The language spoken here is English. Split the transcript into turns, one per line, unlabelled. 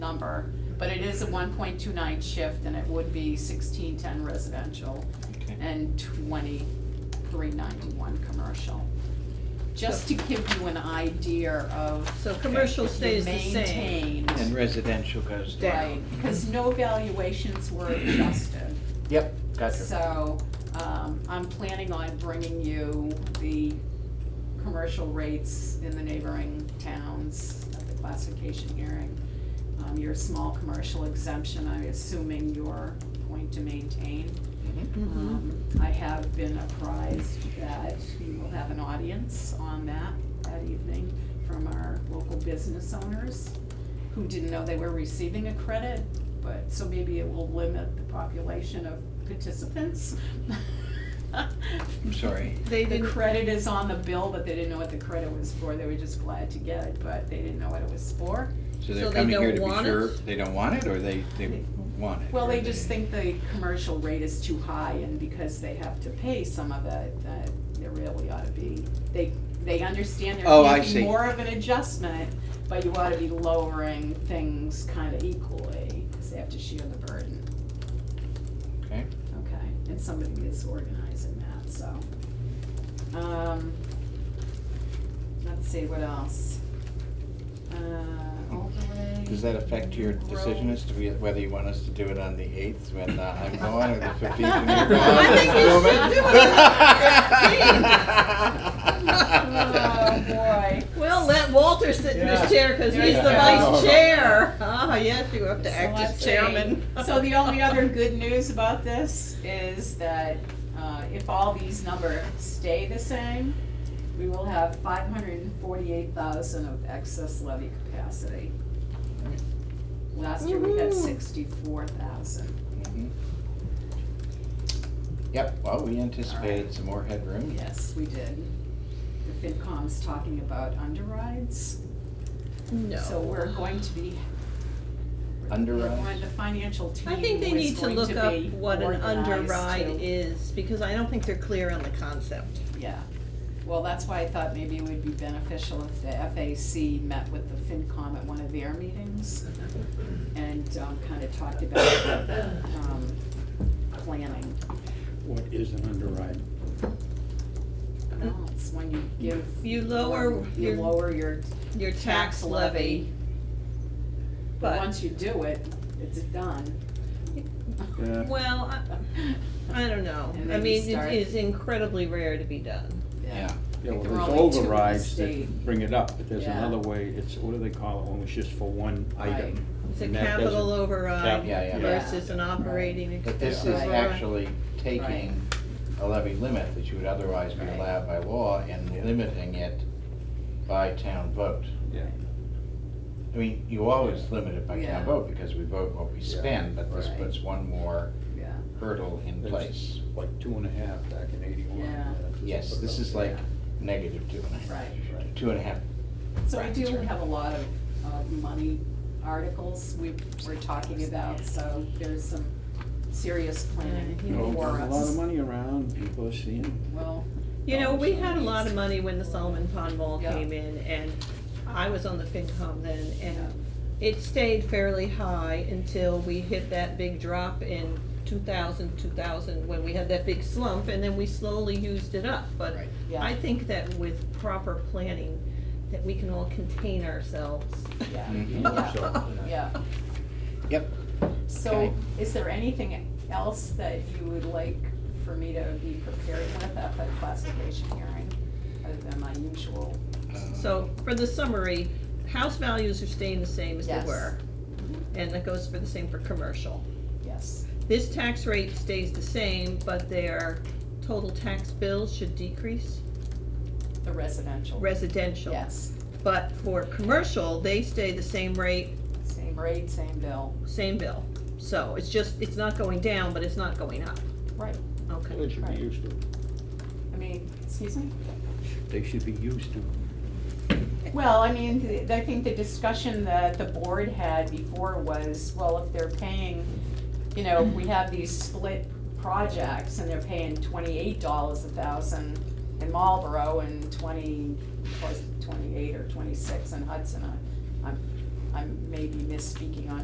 number, but it is a one point two nine shift and it would be sixteen ten residential
Okay.
and twenty-three ninety-one commercial. Just to give you an idea of.
So commercial stays the same.
Maintained,
And residential goes down.
right, because no valuations were adjusted.
Yep, gotcha.
So, um, I'm planning on bringing you the commercial rates in the neighboring towns at the classification hearing. Um, your small commercial exemption, I'm assuming you're going to maintain.
Mhm.
Mhm.
Um, I have been apprised that we will have an audience on that that evening from our local business owners who didn't know they were receiving a credit, but, so maybe it will limit the population of participants.
I'm sorry.
They
The
didn't,
credit is on the bill, but they didn't know what the credit was for. They were just glad to get it, but they didn't know what it was for.
So
So
they're
they
coming here
don't
to be
want
sure,
it?
they don't want it, or they, they want it?
Well,
or
they just think the commercial rate is too high, and because they have to pay some of it, that there really ought to be, they, they understand
Oh, I
there can be
see.
more of an adjustment, but you ought to be lowering things kind of equally, because they have to share the burden,
Okay,
okay? And somebody is organizing that, so. Um, let's see, what else? Uh, overlay.
does that affect your decision
growth.
as to whe- whether you want us to do it on the eighth when uh, I'm gone, or the fifteenth when
I
you're gone?
think you should do
Oh, boy.
well, let Walter sit in
Yeah.
his chair because he's the
Yeah.
vice chair. Ah, yes, you have to
So
act as
let's see.
chairman.
So the only other good news about this is that uh, if all these numbers stay the same, we will have five hundred and forty-eight thousand of excess levy capacity. Last year we had
Woohoo.
sixty-four thousand.
Mhm. Yep, well, we anticipated some more headroom.
Yes, we did. The FinCom's talking about underrides. So
No.
we're going to be.
Underwrite.
We're on The financial team
I think they
is
need to
going
look
to
up
be
what an
organized
underride
to-
is because I don't think they're clear on the concept.
Yeah, well, that's why I thought maybe it would be beneficial if the FAC met with the FinCom at one of their meetings and, um, kind of talked about, um, planning.
What is an underwrite?
No, it's when you give.
You lower
more- You
your-
lower your
Your
tax levy, but
But,
once you do it, it's done.
Yeah,
well, I, I don't know.
And
I
then you
mean,
start-
it is incredibly rare to be done.
Yeah,
yeah, well,
There are
there's
only two in the
overrides
state.
that bring it up, but there's
Yeah.
another way, it's, what do they call it, when it's just for one item?
It's a
and that
capital
doesn't-
override
Yeah, yeah.
versus an
Yeah.
operating
but
expense
this is
Right.
override.
actually
Right.
taking a levy limit that you would otherwise be
Right.
allowed by law and limiting it by town vote.
Yeah,
I mean, you always limit it by
Yeah.
town vote because we vote what we
Yeah.
spend, but this
Right.
puts one more
Yeah,
hurdle in
That's-
place.
like two and a half back in eighty-one.
Yeah.
just
Yes,
put it
this
up
is
there.
like negative two and a half.
Right.
Right.
Two and a half.
so we
Right,
do
that's right.
have a lot of, of money articles we, we're talking about, so there's some serious planning
Yeah,
You know,
for
there's a lot of
us.
money around, people are seeing.
Well,
You
Oh,
know, we had a lot of money when the Solomon Pond Mall
Yeah.
came in and I was on the FinCom then and it stayed fairly high until we hit that big drop in 2000, 2000, when we had that big slump and then we slowly used it up. But
Right.
Yeah.
I think that with proper planning, that we can all contain ourselves.
yeah,
Mhm.
So,
yeah.
Yep,
So,
Okay.
is there anything else that you would like for me to be prepared with at the classification hearing, other than my usual?
So for the summary, house values are staying the same as they
Yes.
were. And that goes for the same for commercial.
Yes,
This tax rate stays the same, but their total tax bills should decrease,
the residential.
residential.
Yes,
But for commercial, they stay the same rate,
same rate, same bill.
same bill. So it's just, it's not going down, but it's not going up.
Right.
Okay.
They should be used to it.
I mean, excuse me?
They should be used to it.
Well, I mean, th- I think the discussion that the board had before was, well, if they're paying, you know, if we have these split projects and they're paying twenty-eight dollars a thousand in Marlboro and twenty, was it twenty-eight or twenty-six in Hudson, I- I'm, I'm maybe misspeaking on